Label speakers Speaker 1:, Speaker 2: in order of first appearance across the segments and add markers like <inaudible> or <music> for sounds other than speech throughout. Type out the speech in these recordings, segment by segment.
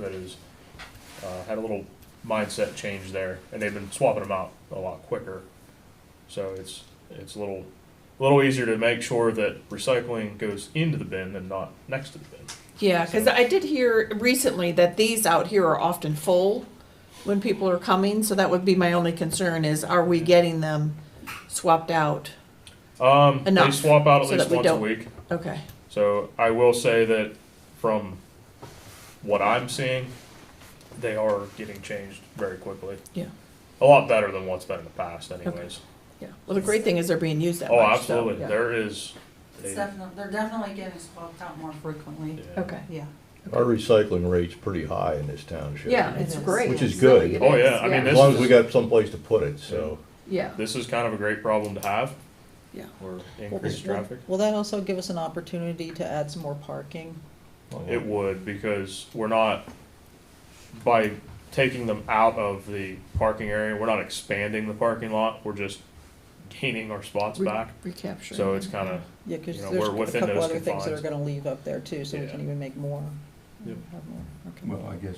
Speaker 1: that is, uh, had a little mindset change there, and they've been swapping them out a lot quicker. So it's, it's a little, a little easier to make sure that recycling goes into the bin than not next to the bin.
Speaker 2: Yeah, because I did hear recently that these out here are often full when people are coming, so that would be my only concern is are we getting them swapped out?
Speaker 1: Um, they
Speaker 2: Enough,
Speaker 1: swap out at
Speaker 2: so
Speaker 1: least
Speaker 2: that we
Speaker 1: once a
Speaker 2: don't-
Speaker 1: week.
Speaker 2: Okay,
Speaker 1: So I will say that from what I'm seeing, they are getting changed very quickly.
Speaker 2: yeah,
Speaker 1: A lot better than what's been in the past anyways.
Speaker 2: yeah. Well, the great thing is they're being used that
Speaker 1: Oh,
Speaker 2: much, so,
Speaker 1: absolutely.
Speaker 2: yeah.
Speaker 1: There is.
Speaker 3: It's
Speaker 1: a-
Speaker 3: definitely, they're definitely getting swapped out more frequently,
Speaker 1: yeah.
Speaker 2: Okay,
Speaker 3: yeah.
Speaker 4: Our recycling rate's pretty high in this township.
Speaker 2: yeah, it's
Speaker 3: It is.
Speaker 2: great.
Speaker 4: Which is
Speaker 2: It's really it
Speaker 4: good.
Speaker 1: Oh,
Speaker 2: is,
Speaker 1: yeah, I mean,
Speaker 4: As long as we got someplace to put it, so.
Speaker 2: Yeah,
Speaker 1: This is kind of a great problem to have.
Speaker 2: Yeah.
Speaker 1: Or increased traffic.
Speaker 5: Will that also give us an opportunity to add some more parking?
Speaker 1: It would, because we're not, by taking them out of the parking area, we're not expanding the parking lot, we're just gaining our spots
Speaker 2: Re-
Speaker 1: back.
Speaker 2: recapture.
Speaker 1: So it's kind of,
Speaker 5: Yeah, because
Speaker 1: You know,
Speaker 5: there's
Speaker 1: we're
Speaker 5: a
Speaker 1: within
Speaker 5: couple
Speaker 1: those
Speaker 5: other things that are
Speaker 1: confines.
Speaker 5: gonna leave up there too, so we
Speaker 1: Yeah.
Speaker 5: can even make more.
Speaker 1: Yep.
Speaker 5: Have more, okay.
Speaker 6: Well, I guess,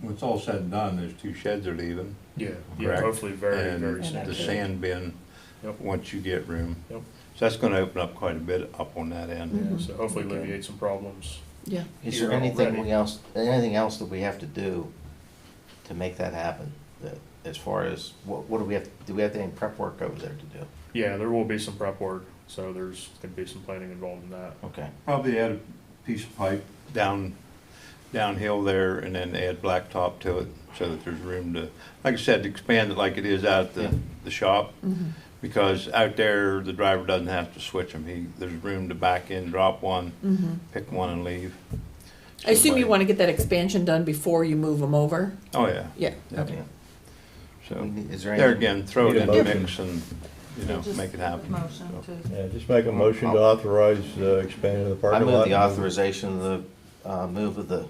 Speaker 6: when it's all said and done, there's two sheds are leaving,
Speaker 1: yeah, yeah,
Speaker 6: Correct.
Speaker 1: hopefully very, very
Speaker 6: and
Speaker 1: soon.
Speaker 6: the
Speaker 5: that's it.
Speaker 6: sand bin,
Speaker 1: Yep.
Speaker 6: once you get room.
Speaker 1: Yep.
Speaker 6: So that's gonna open up quite a bit up on that end.
Speaker 1: Yeah, So hopefully alleviate some problems.
Speaker 2: Yeah,
Speaker 7: Is there
Speaker 1: here
Speaker 7: anything
Speaker 1: already.
Speaker 7: we else, anything else that we have to do to make that happen? That- As far as, what, what do we have, do we have any prep work over there to do?
Speaker 1: Yeah, there will be some prep work, so there's gonna be some planning involved in that.
Speaker 7: Okay,
Speaker 6: Probably add a piece of pipe down, downhill there and then add blacktop to it so that there's room to, like I said, to expand it like it is out at the, the shop.
Speaker 2: Mm-hmm.
Speaker 6: Because out there, the driver doesn't have to switch them. He, there's room to back in, drop one, pick one and leave.
Speaker 2: Mm-hmm. I assume you
Speaker 6: Somebody-
Speaker 2: want to get that expansion done before you move them over?
Speaker 6: Oh, yeah.
Speaker 2: Yeah, okay.
Speaker 7: yeah.
Speaker 6: So,
Speaker 7: Is there
Speaker 6: there
Speaker 7: any,
Speaker 6: again, throw it
Speaker 4: Need a
Speaker 6: in the
Speaker 4: motion.
Speaker 6: mix and, you know,
Speaker 3: Just
Speaker 6: make it happen.
Speaker 3: Motion
Speaker 6: so.
Speaker 3: to,
Speaker 4: Yeah, just make a motion to authorize uh, expanding the
Speaker 7: I
Speaker 4: parking lot.
Speaker 7: move the authorization of the, uh, move of the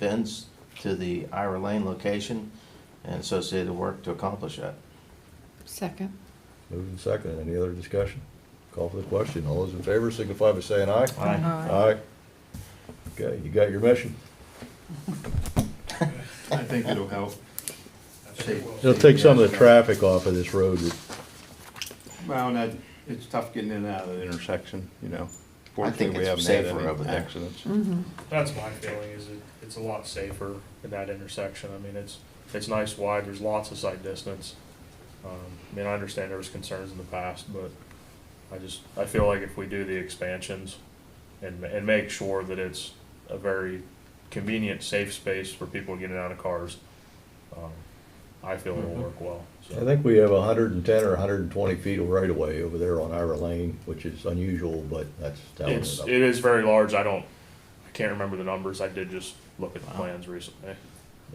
Speaker 7: bins to the Ira Lane location and associated work to accomplish that.
Speaker 2: Second.
Speaker 4: Moving second. Any other discussion? Call for the question. All those in favor signify by saying aye.
Speaker 7: Aye.
Speaker 4: Aye. Okay, you got your mission.
Speaker 6: I think it'll help.
Speaker 4: It'll take some of the traffic off of this road.
Speaker 6: Well, and that, it's tough getting in and out of the intersection, you know.
Speaker 7: I think
Speaker 6: Fortunately, we
Speaker 7: it's
Speaker 6: haven't had
Speaker 7: safer
Speaker 6: any
Speaker 7: over there.
Speaker 6: Accidents.
Speaker 2: Mm-hmm.
Speaker 1: That's my feeling, is it, it's a lot safer in that intersection. I mean, it's, it's nice wide, there's lots of sight distance. Um, I mean, I understand there was concerns in the past, but I just, I feel like if we do the expansions and, ma- and make sure that it's a very convenient, safe space for people getting out of cars, um, I feel it'll work well,
Speaker 4: I
Speaker 1: so.
Speaker 4: think we have hundred and ten or hundred and twenty feet of right of way over there on Ira Lane, which is unusual, but that's. how it
Speaker 1: It's,
Speaker 4: ended up.
Speaker 1: it is very large, I don't, I can't remember the numbers, I did just look at the plans recently.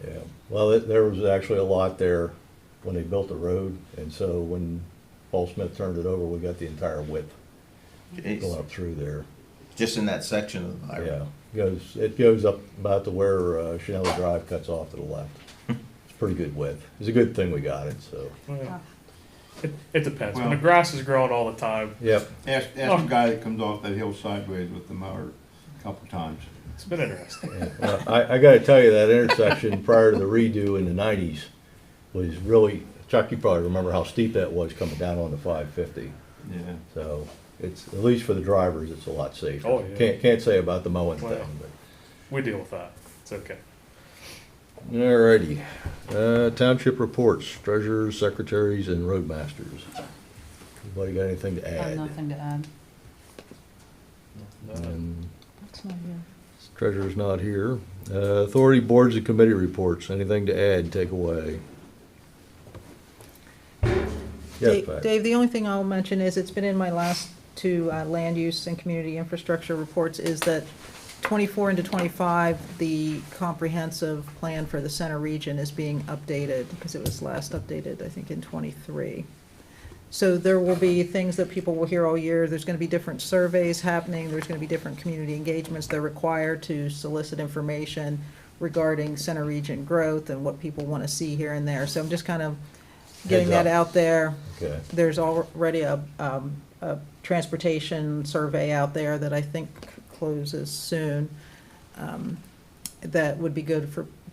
Speaker 4: Yeah, well, it- there was actually a lot there when they built the road, and so when Paul Smith turned it over, we got the entire width going
Speaker 7: It's
Speaker 4: up through there.
Speaker 7: Just in that section of the
Speaker 4: Yeah,
Speaker 7: Ira.
Speaker 4: goes, it goes up about to where uh, Chanel Drive cuts off to
Speaker 1: <laughs>
Speaker 4: the left. It's pretty good width. It's a good thing we got it, so.
Speaker 1: Well, It, it depends. when the
Speaker 6: Well-
Speaker 1: grass is growing all the time,
Speaker 4: Yep,
Speaker 6: Ask, ask the guy that comes off that hill sideways with the mower a couple times.
Speaker 1: it's been interesting.
Speaker 4: Well, I, I gotta tell you, that intersection prior to the redo in the nineties was really, Chuck, you probably remember how steep that was coming down on the five fifty.
Speaker 6: Yeah.
Speaker 4: So it's, at least for the drivers, it's a lot safer.
Speaker 1: Oh, yeah.
Speaker 4: Can't, can't say about the mowing
Speaker 1: Well.
Speaker 4: thing, but.
Speaker 1: We deal with that. It's okay.
Speaker 4: Alrighty, uh, township reports, treasurers, secretaries, and roadmasters. Anybody got anything to
Speaker 3: I have
Speaker 4: add?
Speaker 3: nothing to add.
Speaker 4: And
Speaker 5: That's not here.
Speaker 4: Treasurer's not here. Uh, authority boards and committee reports, anything to add, take away? Yes,
Speaker 5: Dave-
Speaker 4: Pat.
Speaker 5: Dave, the only thing I'll mention is, it's been in my last two uh, land use and community infrastructure reports, is that 24 into 25, the comprehensive plan for the center region is being updated, because it was last updated, I think, in 23. So there will be things that people will hear all year, there's going to be different surveys happening, there's going to be different community engagements, they're required to solicit information regarding center region growth and what people want to see here and there. So I'm just kind of getting
Speaker 4: Heads up.
Speaker 5: that out there
Speaker 4: Okay,
Speaker 5: there's already a, um, a transportation survey out there that I think closes soon, um, that would be good for